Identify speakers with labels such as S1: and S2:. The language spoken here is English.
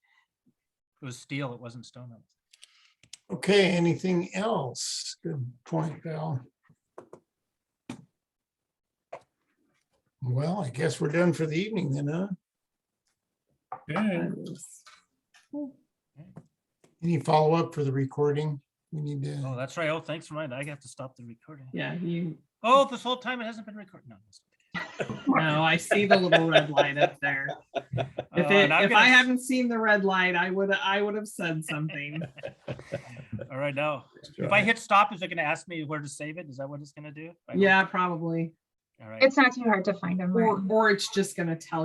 S1: It was steel, it wasn't stone.
S2: Okay, anything else? Good point, Val. Well, I guess we're done for the evening then, huh?
S3: Yeah,
S2: Any follow-up for the recording? We need
S1: Oh,
S2: to,
S1: that's right. Oh, thanks for reminding. I have to stop the recording.
S3: yeah, you,
S1: Oh, this whole time it hasn't been recorded. No. it's-
S3: no, I see the little red light up there. Oh, If
S1: Uh,
S3: it,
S1: and I'm
S3: if
S1: gonna-
S3: I hadn't seen the red light, I would, I would have said something.
S1: All right, now, if I hit stop, is it gonna ask me where to save it? Is that what it's gonna do? I hope-
S3: Yeah, probably.
S1: All right.
S4: It's not too hard to find them. right?
S3: Or, or it's just gonna tell